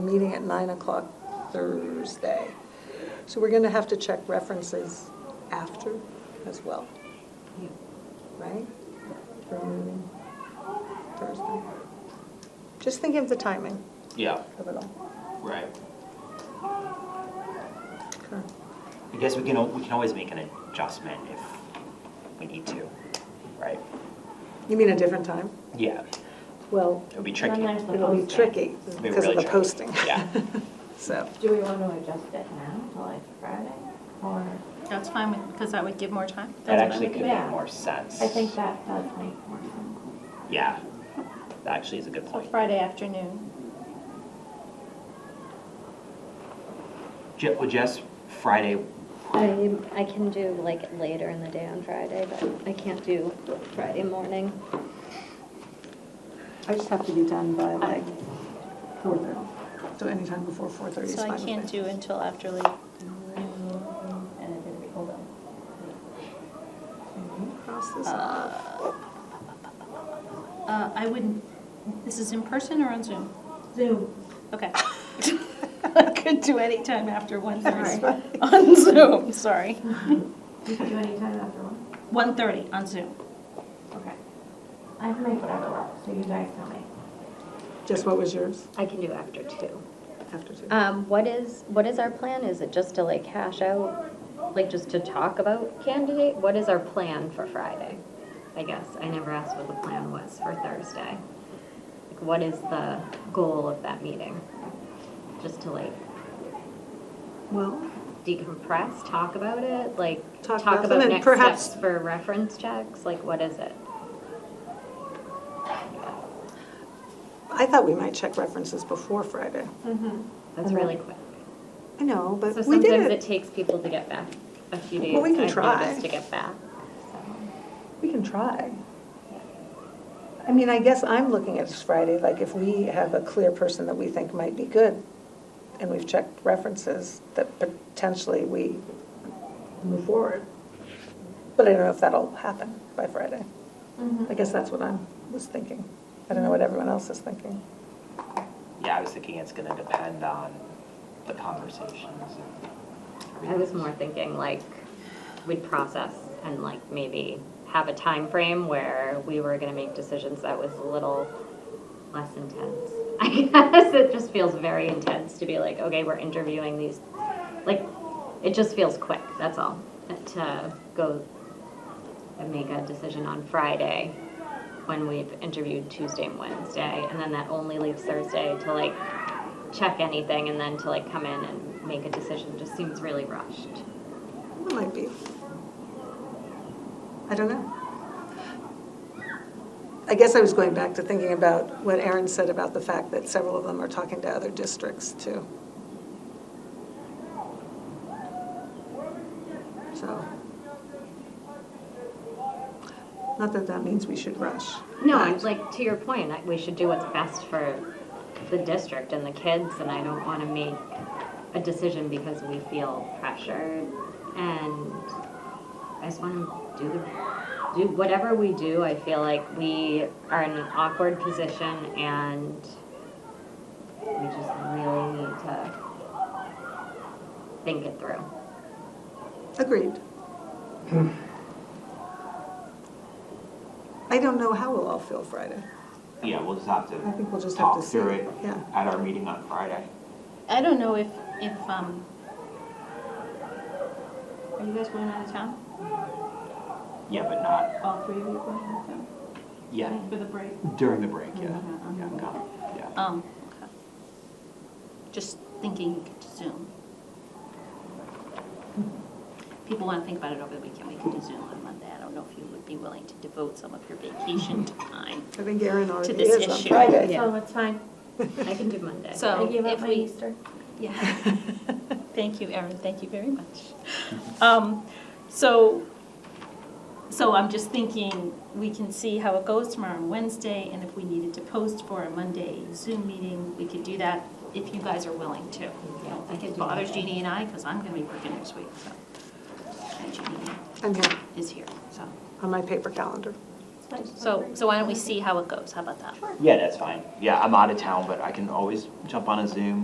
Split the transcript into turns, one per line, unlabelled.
meeting at 9 o'clock Thursday. So we're going to have to check references after as well, right? For our meeting Thursday. Just thinking of the timing
Yeah,
of it all.
right.
Okay.
I guess we can, al- we can always make an adjustment if we need to, right?
You mean a different time?
Yeah,
Well,
it would be tricky.
there's the
it'll be
posting.
tricky
It'll be
because of
really
the
tricky.
posting.
Yeah.
So,
Do we want to adjust it now to like Friday or?
That's fine, with- because that would give more time.
That
That's
actually
fine.
could make
Yeah.
more sense.
I think that does make more sense.
Yeah, that actually is a good
So
point.
Friday afternoon.
Je- Would Jess, Friday,
I, I can do like later in the day on Friday, but I can't do Friday morning.
I just have to be done by like four thirty.
so anytime before 4:30 is
So
fine
I
with
can't
me.
do until after late.
And it didn't, hold on.
Cross this off.
Uh, uh, I wouldn't, this is in person or on Zoom?
Zoom.
Okay. I could do any time after 1:30
Sorry.
on Zoom, sorry.
You can do any time after one.
1:30 on Zoom.
Okay. I can make whatever work, so you guys tell me.
Just what was yours
I can do after two.
after two?
Um, what is, what is our plan? Is it just to like hash out, like just to talk about candidate? What is our plan for Friday? I guess, I never asked what the plan was for Thursday. Like, What is the goal of that meeting? Just to like
Well,
decompress, talk about it, like
Talk
talk
about them
about
and
next
perhaps-
steps for reference checks? Like, what is it?
I thought we might check references before Friday.
That's really quick.
I know, Uh-huh. but
So
we did
sometimes it
it.
takes people to get back a few days.
Well, we can
I've
try.
noticed, To get back.
We can try. I mean, I guess I'm looking at this Friday, like if we have a clear person that we think might be good, and we've checked references, that potentially we move forward. But I don't know if that'll happen by Friday.
Mm-hmm.
I guess that's what I was thinking. I don't know what everyone else is thinking.
yeah, I was thinking it's gonna depend on the conversations. and
I was
everything.
more thinking like we'd process and like maybe have a time frame where we were gonna make decisions that was a little less intense. I guess it just feels very intense to be like, okay, we're interviewing these, like, it just feels quick, that's all. To go and make a decision on Friday when we've interviewed Tuesday and Wednesday, and then that only leaves Thursday to like check anything and then to like come in and make a decision just seems really rushed.
It might be. I don't know. I guess I was going back to thinking about what Aaron said about the fact that several of them are talking to other districts too. So. Not that that means we should rush.
No, I'm like to your point, I- we should do what's best for the district and the kids, and I don't want to make a decision because we feel pressured. And I just want to do the, do whatever we do. I feel like we are in an awkward position, and we just really need to think it through.
Agreed. I don't know how we'll all feel Friday.
Yeah, we'll just have
I
to
think we'll just have to
talk
see.
through it
Yeah.
at our meeting on Friday.
I don't know if, if, um, are you guys going out of town?
Yeah, but not,
All three of you going to Zoom?
yeah,
For the break?
during the break, yeah.
Mm-hmm,
Mhm.
Yeah, I'm gone, yeah.
Um, okay. Just thinking you could Zoom. People want to think about it over the weekend, we could do Zoom on Monday. I don't know if you would be willing to devote some of your vacation time.
I think Aaron already
this
is on
issue.
Friday.
Yeah.
So it's fine.
I can do Monday.
So
I gave up
if
my
we,
Easter.
yeah. Thank you, Erin, thank you very much. Um, So, so I'm just thinking, we can see how it goes tomorrow on Wednesday, and if we needed to post for a Monday Zoom meeting, we could do that if you guys are willing to. I don't think it bothers Jeannie and I, because I'm going to be working next week, so. And Jeannie
I'm here
is here, so.
on my paper calendar.
So, so why don't we see how it goes, how about that?
Yeah, that's fine. Yeah, I'm out of town, but I can always jump on a Zoom